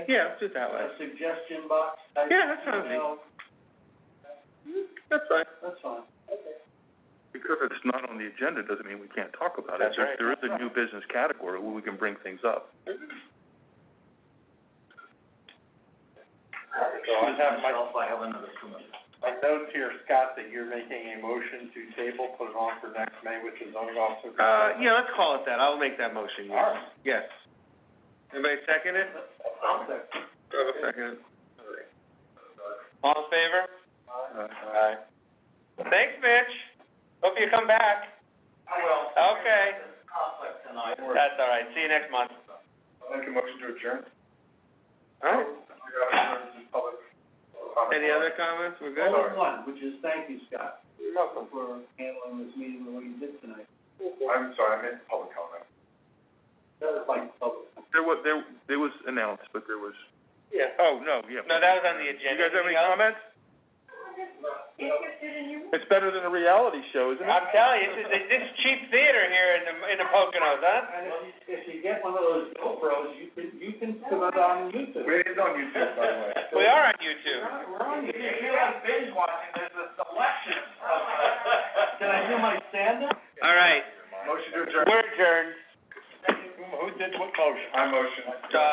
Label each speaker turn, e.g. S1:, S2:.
S1: Yeah, let's do it that way.
S2: a suggestion box type
S1: Yeah, that's fine with me.
S2: email.
S1: That's fine.
S2: That's fine.
S3: Because it's not on the agenda doesn't mean we can't talk about it.
S1: That's right.
S3: There there is a new business category where we can bring things up.
S2: So I have myself, I have another commitment. My notes here, Scott, that you're making a motion to table, put it on for next May, which is zoning officer.
S1: Uh, yeah, let's call it that. I'll make that motion, yes.
S2: All right.
S1: Yes. Anybody second it?
S2: I'll second.
S1: I'll second it. All in favor?
S3: Uh,
S1: Aye. Thanks, Mitch. Hope you come back.
S2: I will.
S1: Okay.
S2: Conflict tonight.
S1: That's all right. See you next month.
S2: Make a motion to adjourn.
S1: All right. Any other comments? We're good?
S2: Only one, which is thank you, Scott, for handling this meeting and what you did tonight.
S3: I'm sorry, I meant public comment.
S2: That was like public.
S3: There was, there, there was announced, but there was,
S1: Yeah.
S3: oh, no, yeah.
S1: No, that was on the
S3: You
S1: agenda.
S3: guys have any
S1: Anything else?
S3: comments? It's better than a reality show, isn't it?
S1: I'm telling you, this is, this is cheap theater here in the, in the Poconos, huh?
S2: And if you, if you get one of those GoPros, you can, you can put it on YouTube. We're on YouTube, by the
S1: We
S2: way.
S1: are on YouTube.
S2: We're on YouTube. You're not binge watching, there's a selection. uh, Can I do my stand-up?
S1: All right.
S2: Motion to
S1: We're adjourned.
S2: Who did what motion? I motion.
S1: Uh,